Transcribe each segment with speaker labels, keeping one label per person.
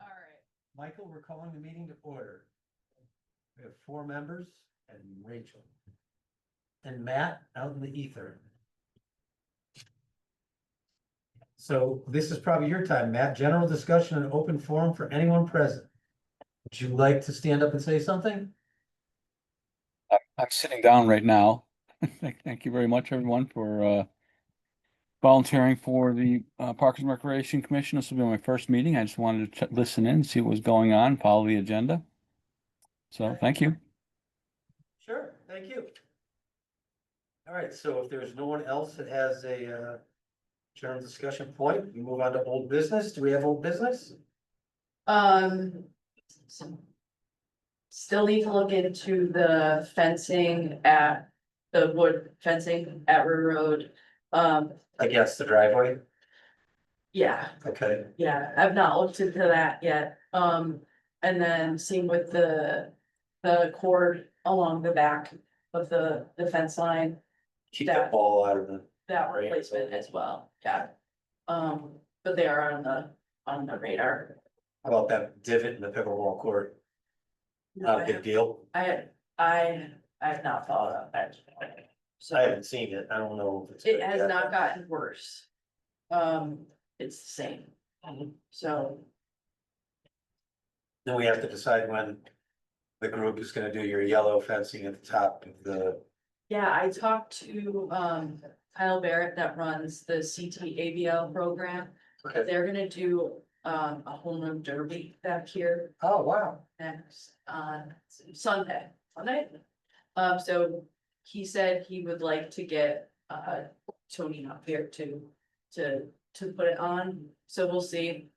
Speaker 1: All right.
Speaker 2: Michael, we're calling the meeting to order. We have four members and Rachel. And Matt out in the ether. So this is probably your time, Matt. General discussion and open forum for anyone present. Would you like to stand up and say something?
Speaker 3: I- I'm sitting down right now. Thank thank you very much, everyone, for uh, volunteering for the uh, Parks and Recreation Commission. This will be my first meeting. I just wanted to ch- listen in, see what was going on, follow the agenda. So, thank you.
Speaker 2: Sure, thank you. All right, so if there's no one else that has a uh general discussion point, we move on to old business. Do we have old business?
Speaker 1: Um. Still need to look into the fencing at, the wood fencing at River Road. Um,
Speaker 2: I guess the driveway.
Speaker 1: yeah,
Speaker 2: Okay,
Speaker 1: yeah, I've not looked into that yet. Um, and then same with the, the cord along the back of the, the fence line,
Speaker 2: keep the
Speaker 1: That-
Speaker 2: ball out of the.
Speaker 1: that
Speaker 2: Right.
Speaker 1: replacement as well, yeah. Um, but they are on the, on the radar.
Speaker 2: How about that divot in the pickleball court?
Speaker 1: No,
Speaker 2: Not
Speaker 1: I
Speaker 2: a big deal.
Speaker 1: I, I, I have not thought of that.
Speaker 2: I haven't seen it. I don't know. if it's
Speaker 1: It
Speaker 2: good
Speaker 1: has
Speaker 2: yet.
Speaker 1: not gotten worse. Um, it's the same, so,
Speaker 2: Then we have to decide when the group is gonna do your yellow fencing at the top of the,
Speaker 1: yeah, I talked to, um, Kyle Barrett that runs the CT ABL program.
Speaker 2: Okay.
Speaker 1: They're gonna do, um, a home run derby back here
Speaker 2: oh, wow.
Speaker 1: next, on Sunday, Sunday. Um, so he said he would like to get, uh, Tony up here to, to, to put it on, so we'll see.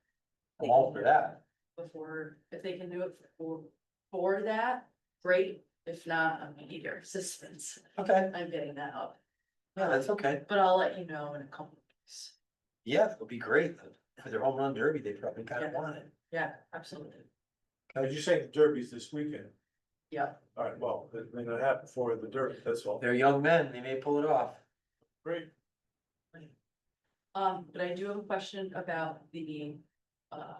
Speaker 2: I'm all for that.
Speaker 1: before, if they can do it for, for that, great. If not, I'm gonna need your assistance.
Speaker 2: Okay,
Speaker 1: I'm getting that up.
Speaker 2: yeah, that's okay.
Speaker 1: But I'll let you know in a couple weeks.
Speaker 2: Yeah, it'll be great. For their home run derby, they probably kind of
Speaker 1: Yeah.
Speaker 2: want it.
Speaker 1: Yeah, absolutely.
Speaker 4: As you say, the derby's this weekend.
Speaker 1: Yeah.
Speaker 4: All right, well, it may not happen before the derby, that's all.
Speaker 2: They're young men, they may pull it off.
Speaker 4: Great.
Speaker 1: Um, but I do have a question about the, uh,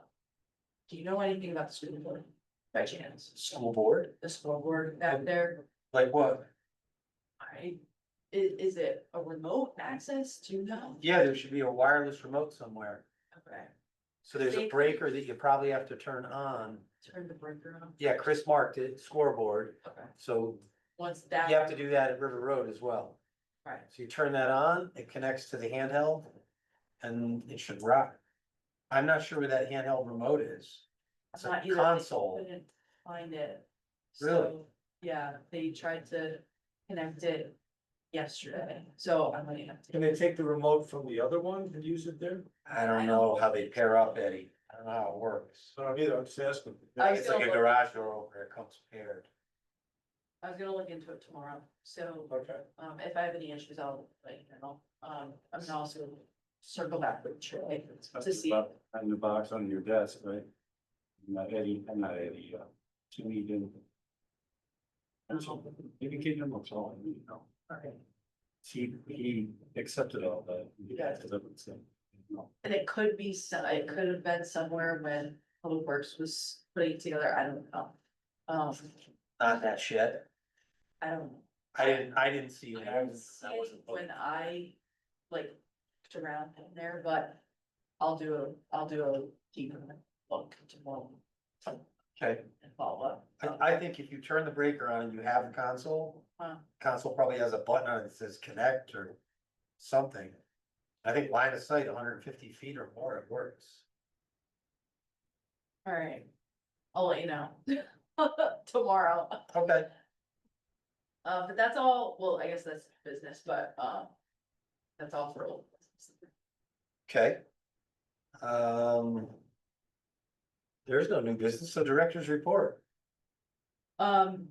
Speaker 1: do you know anything about the school board by chance?
Speaker 2: School board,
Speaker 1: The school board out there,
Speaker 2: like what?
Speaker 1: I, i- is it a remote access? Do you know?
Speaker 2: Yeah, there should be a wireless remote somewhere.
Speaker 1: Okay,
Speaker 2: So there's a
Speaker 1: Safety.
Speaker 2: breaker that you probably have to turn on.
Speaker 1: turn the breaker on.
Speaker 2: Yeah, Chris marked it, scoreboard.
Speaker 1: Okay,
Speaker 2: So
Speaker 1: once
Speaker 2: you
Speaker 1: that.
Speaker 2: have to do that at River Road as well.
Speaker 1: Right.
Speaker 2: So you turn that on, it connects to the handheld and it should rock. I'm not sure where that handheld remote is. It's
Speaker 1: Not
Speaker 2: a
Speaker 1: either, they
Speaker 2: console.
Speaker 1: Couldn't find it.
Speaker 2: Really?
Speaker 1: So, Yeah, they tried to connect it yesterday, so I'm gonna have to.
Speaker 4: Can they take the remote from the other one and use it there?
Speaker 2: I don't know how they pair up, Eddie. I don't know how it works.
Speaker 4: So I don't either, I'm just asking.
Speaker 1: I
Speaker 2: It's like a
Speaker 1: still-
Speaker 2: garage door opener, it comes paired.
Speaker 1: I was gonna look into it tomorrow, so,
Speaker 4: Okay,
Speaker 1: um, if I have any issues, I'll, like, you know, um, I'm gonna also circle back with Troy to see.
Speaker 5: On the box on your desk, right? Not Eddie, I'm not Eddie, uh, to me, then. Maybe give him a call, you know.
Speaker 1: Okay.
Speaker 5: He, he accepted all that.
Speaker 1: Yeah.
Speaker 5: That's what I'm saying. No.
Speaker 1: And it could be, so- it could have been somewhere when Public Works was putting it together, I don't know. Um,
Speaker 2: Not that shed.
Speaker 1: I don't know.
Speaker 2: I didn't, I didn't see. it.
Speaker 1: I
Speaker 2: I
Speaker 1: would
Speaker 2: was-
Speaker 1: say
Speaker 2: I wasn't looking.
Speaker 1: when I like looked around in there, but I'll do a, I'll do a deeper look tomorrow
Speaker 2: Okay,
Speaker 1: and follow up.
Speaker 2: I, I think if you turn the breaker on and you have a console,
Speaker 1: Huh.
Speaker 2: console probably has a button on it that says connect or something. I think line of sight, hundred and fifty feet or more, it works.
Speaker 1: All right, I'll let you know tomorrow.
Speaker 2: Okay.
Speaker 1: Uh, but that's all, well, I guess that's business, but, um, that's all for old. business.
Speaker 2: Okay. Um. There's no new business, so director's report.
Speaker 1: Um,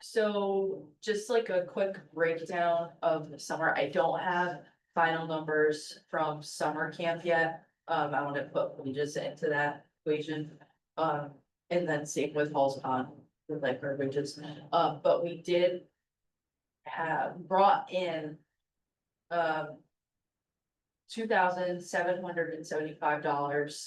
Speaker 1: so just like a quick breakdown of the summer, I don't have final numbers from summer camp yet. Um, I wanna put wages into that equation, um, and then same with Halls Pond, with like our wages, uh, but we did. Have brought in. Um. two thousand seven hundred and seventy-five dollars